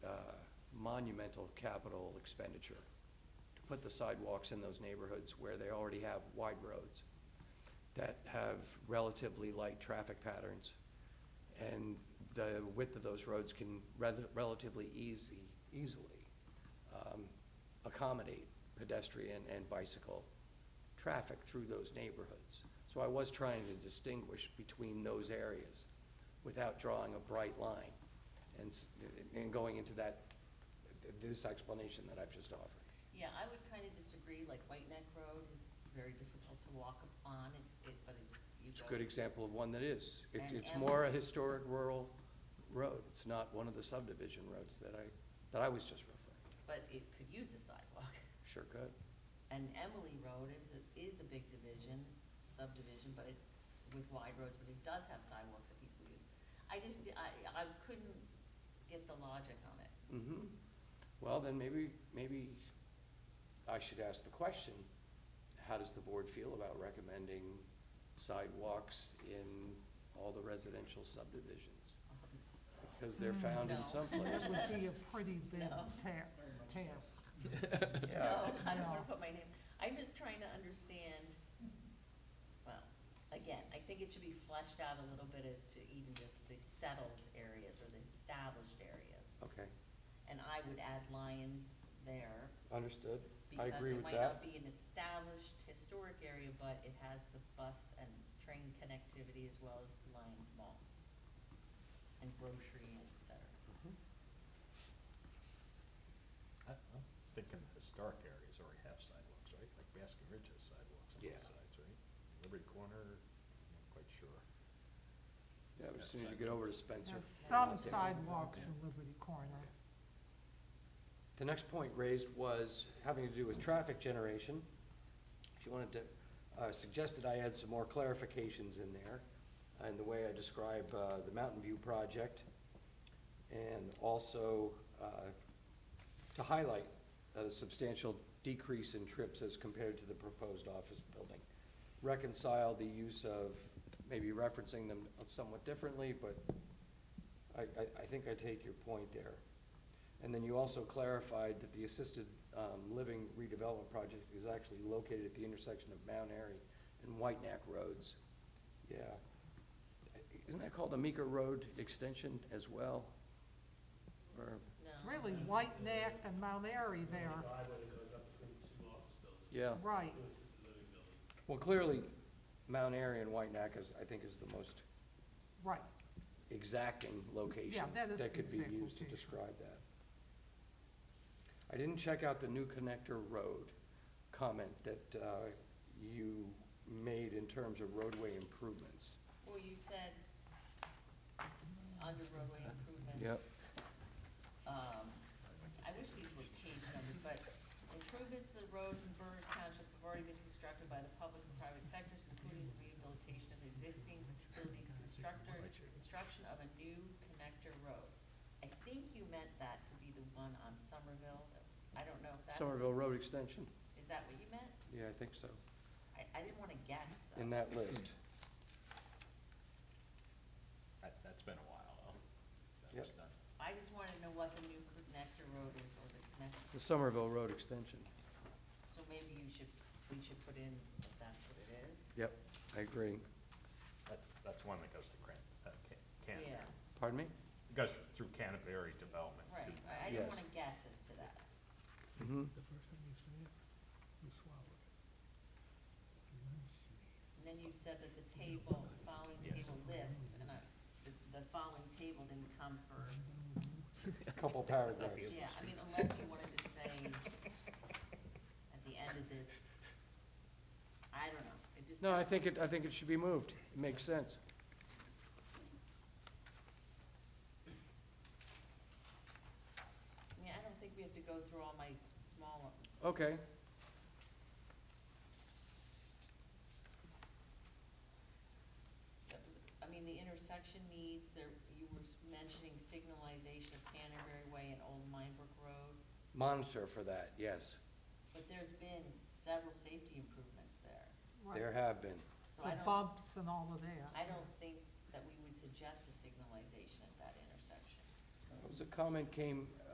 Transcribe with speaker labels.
Speaker 1: uh, monumental capital expenditure to put the sidewalks in those neighborhoods where they already have wide roads that have relatively light traffic patterns. And the width of those roads can rather- relatively easy, easily um, accommodate pedestrian and bicycle traffic through those neighborhoods. So I was trying to distinguish between those areas without drawing a bright line and, s- and going into that, this explanation that I've just offered.
Speaker 2: Yeah, I would kind of disagree, like White Neck Road is very difficult to walk on, it's, it, but it's, you
Speaker 1: It's
Speaker 2: go.
Speaker 1: a good example of one that is. It's,
Speaker 2: And-
Speaker 1: it's
Speaker 2: and-
Speaker 1: more a historic rural road. It's not one of the subdivision roads that I, that I was just referring to.
Speaker 2: But it could use a sidewalk.
Speaker 1: Sure could.
Speaker 2: And Emily Road is, a- is a big division, subdivision, but it, with wide roads, but it does have sidewalks that people use. I just, di- I, I couldn't get the logic on it.
Speaker 1: Mm-hmm. Well, then maybe, maybe I should ask the question, how does the board feel about recommending sidewalks in all the residential subdivisions? Because they're found in
Speaker 2: No.
Speaker 1: some places.
Speaker 3: That would be a pretty big
Speaker 2: No.
Speaker 3: ta-
Speaker 1: Yeah.
Speaker 3: task.
Speaker 2: No, I don't wanna
Speaker 3: No.
Speaker 2: put my name, I'm just trying to understand, well, again, I think it should be fleshed out a little bit as to even just the settled areas or the established areas.
Speaker 1: Okay,
Speaker 2: And I would add lions there,
Speaker 1: understood. I
Speaker 2: because
Speaker 1: agree
Speaker 2: it
Speaker 1: with
Speaker 2: might not
Speaker 1: that.
Speaker 2: be an established historic area, but it has the bus and train connectivity as well as Lions Mall. And grocery and et cetera.
Speaker 4: I- I'm thinking historic areas already have sidewalks, right? Like Baskin Ridge has sidewalks on
Speaker 1: Yeah.
Speaker 4: both sides, right? Liberty Corner, I'm not quite sure.
Speaker 1: Yeah, but as soon as you get over to Spencer.
Speaker 3: There's some sidewalks in Liberty Corner.
Speaker 1: The next point raised was having to do with traffic generation. She wanted to, uh, suggested I add some more clarifications in there, and the way I describe, uh, the Mountain View project, and also, uh, to highlight a substantial decrease in trips as compared to the proposed office building. Reconcile the use of, maybe referencing them somewhat differently, but I, I, I think I take your point there. And then you also clarified that the assisted um, living redevelopment project is actually located at the intersection of Mount Airy and White Neck Roads. Yeah. Isn't that called the Meeker Road Extension as well? Or,
Speaker 2: No.
Speaker 3: It's really White Neck and Mount Airy there,
Speaker 5: driveway that goes up between the two office buildings,
Speaker 1: yeah,
Speaker 3: right.
Speaker 5: two assisted living buildings.
Speaker 1: well, clearly, Mount Airy and White Neck is, I think, is the most
Speaker 3: Right,
Speaker 1: exacting location.
Speaker 3: Yeah, that is
Speaker 1: That could be
Speaker 3: exact
Speaker 1: used to
Speaker 3: location.
Speaker 1: describe that. I didn't check out the new connector road comment that uh, you made in terms of roadway improvements.
Speaker 2: Well, you said under roadway improvements. Um, I wish these were page numbers, but improvements to the roads in Berners Township have already been constructed by the public and private sectors, including the rehabilitation of existing facilities, constructor, construction of a new connector road. I think you meant that to be the one on Somerville. I don't know if that's,
Speaker 1: Somerville Road Extension,
Speaker 2: is that what you meant?
Speaker 1: yeah, I think so,
Speaker 2: I, I didn't wanna guess,
Speaker 1: in
Speaker 2: though.
Speaker 1: that list.
Speaker 4: That, that's been a while, though. That
Speaker 1: Yep.
Speaker 4: was done.
Speaker 2: I just wanted to know what the new connector road is or the connector,
Speaker 1: The Somerville Road Extension.
Speaker 2: so maybe you should, we should put in that that's what it is.
Speaker 1: Yep, I agree.
Speaker 4: That's, that's one that goes to Cran, uh, Ca- Canterbury.
Speaker 2: Yeah.
Speaker 1: Pardon me?
Speaker 4: It goes through Canterbury Development. to
Speaker 2: Right, I- I didn't
Speaker 1: Yes.
Speaker 2: wanna guess as to that.
Speaker 1: Mm-hmm.
Speaker 6: The first thing you say, you swallow it.
Speaker 2: And then you said that the table, the following
Speaker 4: Yes.
Speaker 2: table lists, and I, the, the following table didn't come for,
Speaker 1: Couple paragraphs.
Speaker 2: yeah, I mean, unless you wanted to say at the end of this, I don't know, it just.
Speaker 1: No, I think it, I think it should be moved. It makes sense.
Speaker 2: I mean, I don't think we have to go through all my small,
Speaker 1: Okay.
Speaker 2: I mean, the intersection needs, there, you were mentioning signalization of Canterbury Way and Old Minebrook Road,
Speaker 1: Monitor for that, yes.
Speaker 2: but there's been several safety improvements there,
Speaker 3: right.
Speaker 1: There have been.
Speaker 2: so I don't.
Speaker 3: The bumps and all of that.
Speaker 2: I don't think that we would suggest a signalization at that intersection.
Speaker 1: It was a comment came